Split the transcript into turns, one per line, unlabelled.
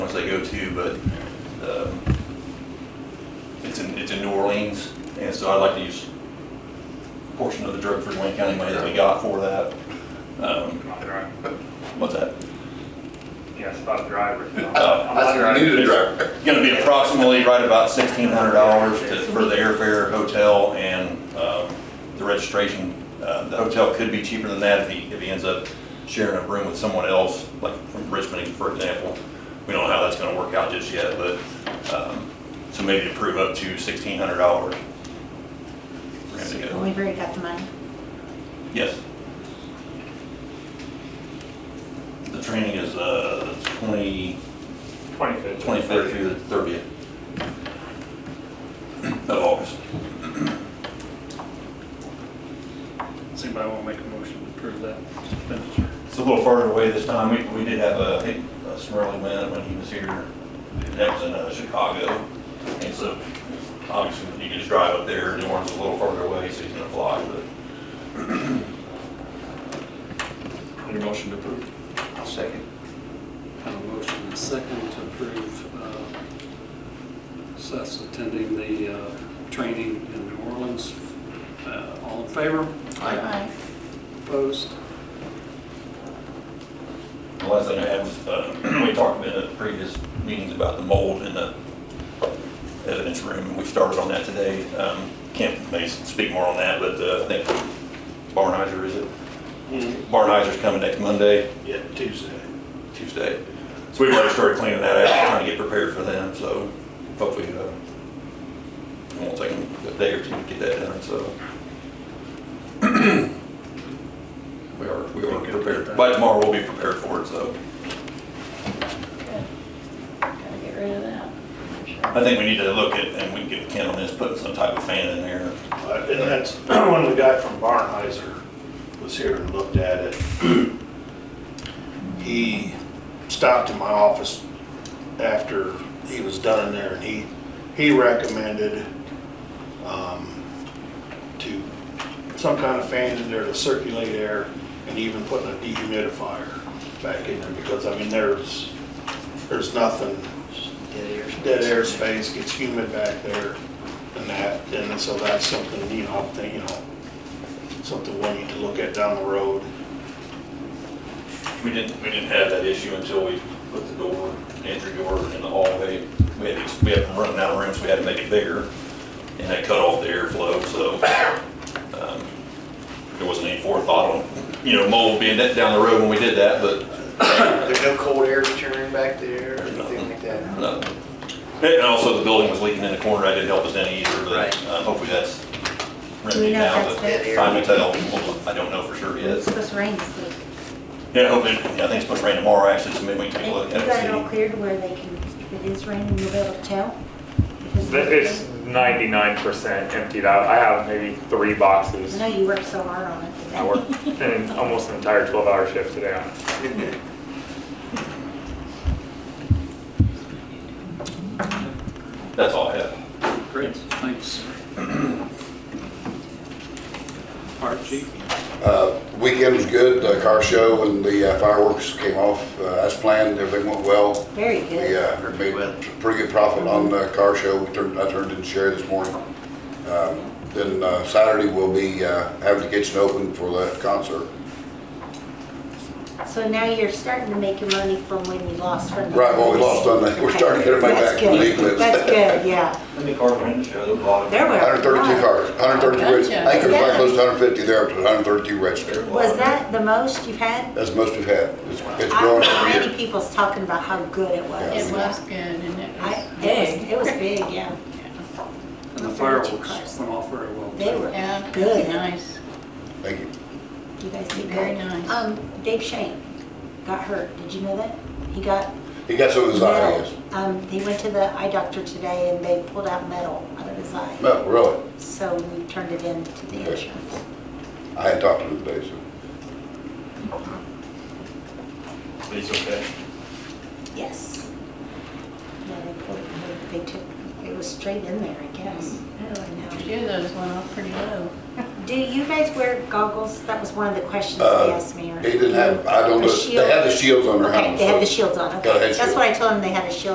you, but um, it's in, it's in New Orleans, and so I'd like to use a portion of the Drug-Free Wayne County money that we got for that. Um,
My driver.
What's that?
Yeah, about driver.
Oh,
I'm not
New to
driving.
driver.
Gonna be approximately right about sixteen hundred dollars for the airfare, hotel, and um, the registration. Uh, The hotel could be cheaper than that if he, if he ends up sharing a room with someone else, like from Richmond, for example. We don't know how that's gonna work out just yet, but, um, so maybe approve up to sixteen hundred dollars.
We've already got the money.
Yes. The training is uh, the twenty,
Twenty-fifth.
25th through the 30th of August.
Does anybody want to make a motion to approve that expenditure?
It's a little further away this time. We, we did have a, I think, a Smurley win when he was here. That was in uh, Chicago. And so obviously you can just drive up there. New Orleans is a little further away, so he's gonna fly, but
Need a motion to approve?
I'll second.
Have a motion and a second to approve uh, Seth's attending the uh, training in New Orleans. Uh, All in favor? Opposed?
the last thing I had was, uh, we talked in the previous meetings about the mold in the evidence room. and We started on that today. Um, Kent may speak more on that, but uh, I think Barnheiser, is it? Barnheiser's coming next Monday.
Mm-hmm. Yeah, Tuesday.
Tuesday. So we've already started cleaning that out, trying to get prepared for them, so hopefully, uh, it won't take them a day or two to get that done, so. We are, we are prepared. By tomorrow, we'll be prepared for it, so.
Gotta get rid of that.
I think we need to look at, and we can get Ken on this, putting some type of fan in there.
Uh, And that's, when the guy from Barnheiser was here and looked at it, he stopped in my office after he was done in there, and he, he recommended um, to, some kind of fan in there to circulate air, and even putting a dehumidifier back in there, because, I mean, there's, there's nothing dead air space gets humid back there and that, and so that's something, you know, I'm thinking, you know, something we need to look at down the road.
We didn't, we didn't have that issue until we put the door, entry door in the hallway. We had, these- we had them running out of rooms, we had to make it bigger, and that cut off the airflow, so, um, there wasn't any forethought on, you know, mold being that down the road when we did that, but
There's no cold air return back there or
There's
anything like that.
no. And also the building was leaking in the corner, I didn't help us any either, but,
Right.
uh, hopefully that's
Do we
remedied
know
now,
if
but
that's
been-
time will tell, We'll- I don't know for sure yet.
It's supposed to rain this week.
Yeah, hopefully, I think it's supposed to rain tomorrow, actually, so maybe we can take a look
You
at it.
got it
see.
all cleared where they can, if it is raining, you'll be able to tell? If
It's ninety-nine percent emptied out. I have maybe three
I
boxes.
know you worked so hard on it.
I worked an, almost an entire twelve-hour shift today on it.
That's all I have.
Great, thanks. Fire chief?
Uh, Weekend was good, the car show and the uh, fireworks came off uh, as planned, everything went well.
Very
We
good.
uh, made pretty good profit on
Mm-hmm.
the car show, We turned- I turned in share this morning. Um, Then uh, Saturday, we'll be uh, having the kitchen open for the concert.
So now you're starting to make your money from when you lost from the.
Right, well, we lost on that, we're starting to get everybody back
That's
from the
good.
eclipse.
That's good, yeah.
Let me carve one in the show, there was a lot of.
There were.
132 cars, 132, reg- I think there's like close to 150 there, but 132 registered.
Was that the most you've had?
That's the most we've had. It's it's
I don't
growing
know
every
how
year.
many people's talking about how good it was.
Yeah.
It was good and it
I,
was
it was,
big.
it was big, yeah.
And the fireworks went off very well.
They were
Yeah,
good.
Nice.
Thank you.
You guys did
Very
good.
nice.
Um, Dave Shane got hurt. Did you know that? He got
He got some of his
metal.
ideas.
Um, he went to the eye doctor today and they pulled out metal out of his eye.
No, really.
So we turned it in to the
Okay.
insurance.
I had talked to him today, so.
It's okay.
Yes. Yeah, they pulled, they they took, it was straight in there, I guess. Oh, I know.
Two of those went off pretty low.
Do you guys wear goggles? That was one of the questions they
Uh,
asked me. or-
He didn't have, I don't
The
know, they had the shields on their
Okay,
helmets.
they had
so-
the shields on,
Got a head
okay. That's
shield.
what I told them, they had a shield